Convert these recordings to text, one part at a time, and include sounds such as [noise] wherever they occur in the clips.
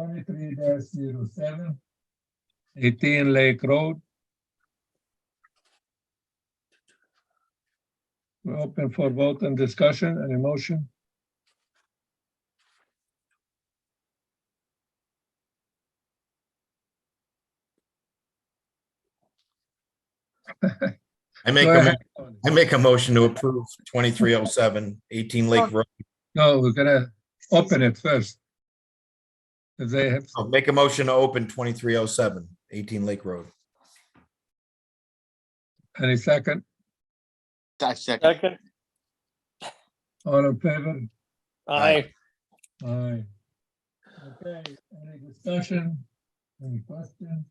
twenty-three 7 Eighteen Lake Road. We're open for vote and discussion and emotion. I make, Go a ahead, mo- Tony. I make a motion to approve 2307 18 Lake Road. No, we're gonna open it first. If they have, I'll Make a motion to open 2307 18 Lake Road. any second, I second. Second, all in favor? aye. Aye. Okay, any discussion, any questions?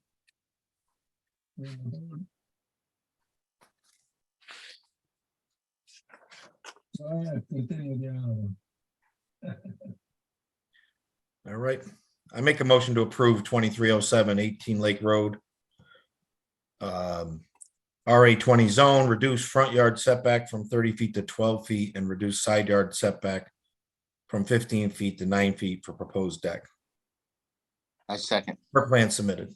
All right, continue the other one. All right. I make a motion to approve 2307 18 Lake Road. Um, RA twenty zone, reduce front yard setback from thirty feet to twelve feet and reduce side yard setback from fifteen feet to nine feet for proposed deck, I second. per plan submitted.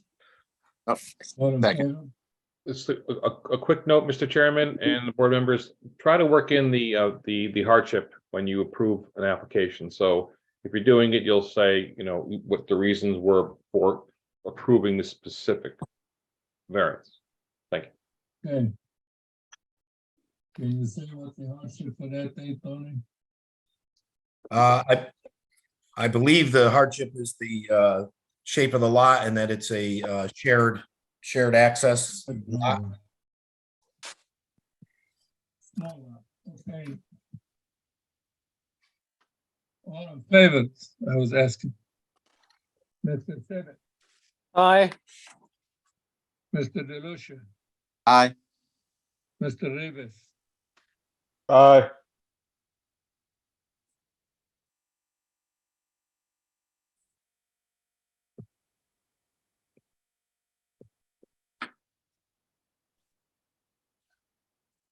Oh, All in Second. favor? Just a, a- a quick note, Mr. Chairman and the board members, try to work in the, uh, the, the hardship when you approve an application. So if you're doing it, you'll say, you know, what the reasons were for approving the specific variance. Okay. Can you say what the hardship for that day, Tony? Uh, I, I believe the hardship is the, uh, shape of the lot and that it's a, uh, shared, shared access. lot. Small one, okay. All in favor, I was asking. Mr. Tibbet, Aye, Mr. DeLucia, Aye. Mr. Rivas, Aye.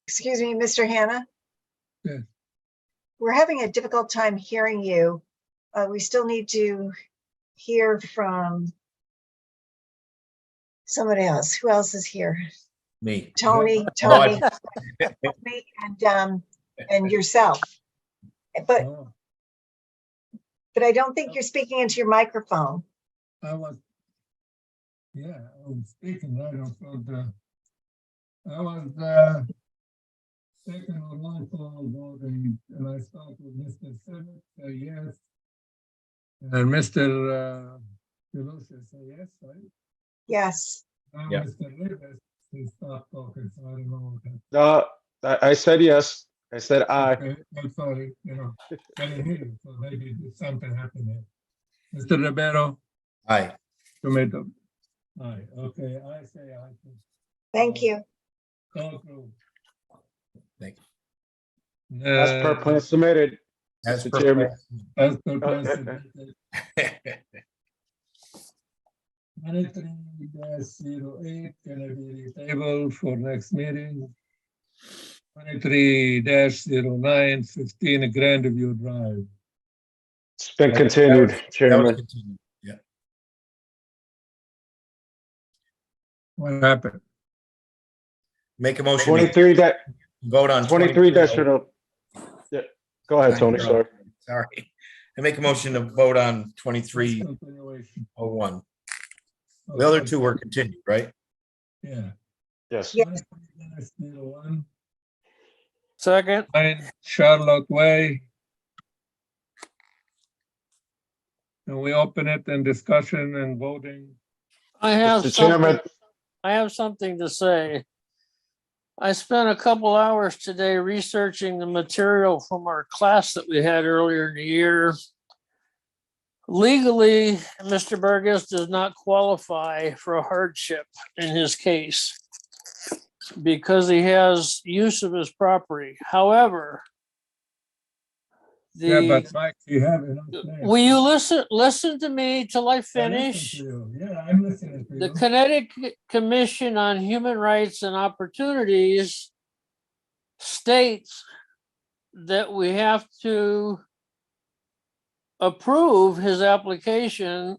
Excuse me, Mr. Hannah? Yeah. We're having a difficult time hearing you. Uh, we still need to hear from somebody else. Who else is here? Me. Tony, [laughs] Oh, I- Tony, me, and, um, and yourself. But, Oh, but I don't think you're speaking into your microphone. I was. Yeah, I was speaking right off of the. I was, uh. Taking a long call voting and I spoke with Mr. Tibbet, so yes. And Mr. uh, DeLucia, say yes, right? Yes. Now, Yeah. Mr. Rivas, he stopped talking, so I don't know. what happened. No, I, I said yes. I said aye. Okay, I'm sorry, you know, I didn't hear you, so maybe something happened there. Mr. Rivero, Aye. tomato. Aye, okay, I say I can Oh. Thank you. go through. Thank you. As per Uh, plan submitted. As Mr. per- Chairman. As Uh, per plan submitted, [laughs] ninety-three dash zero eight, gonna be tabled for next meeting. Twenty-three dash zero nine fifteen Grandview Drive. It's been continued, That was Chairman. continued. What happened? Make a motion, to Twenty-three that, vote on. oh twenty-three that should have. Yeah, go ahead, Tony, sorry. Sorry. I make a motion to vote on twenty-three Continuation. oh one. The other two were continued, right? Yeah. Yes, Yeah. 23-01, second, Nine Charlotte Way. And we open it and discussion and voting. I have Mr. Chairman, something, I have something to say. I spent a couple hours today researching the material from our class that we had earlier in the year. Legally, Mr. Burgess does not qualify for a hardship in his case because he has use of his property. However, Yeah, the, but Mike, you have enough. there. will you listen, listen to me till I I listen finish? to you. Yeah, I'm listening to The you. Connecticut Commission on Human Rights and Opportunities states that we have to approve his application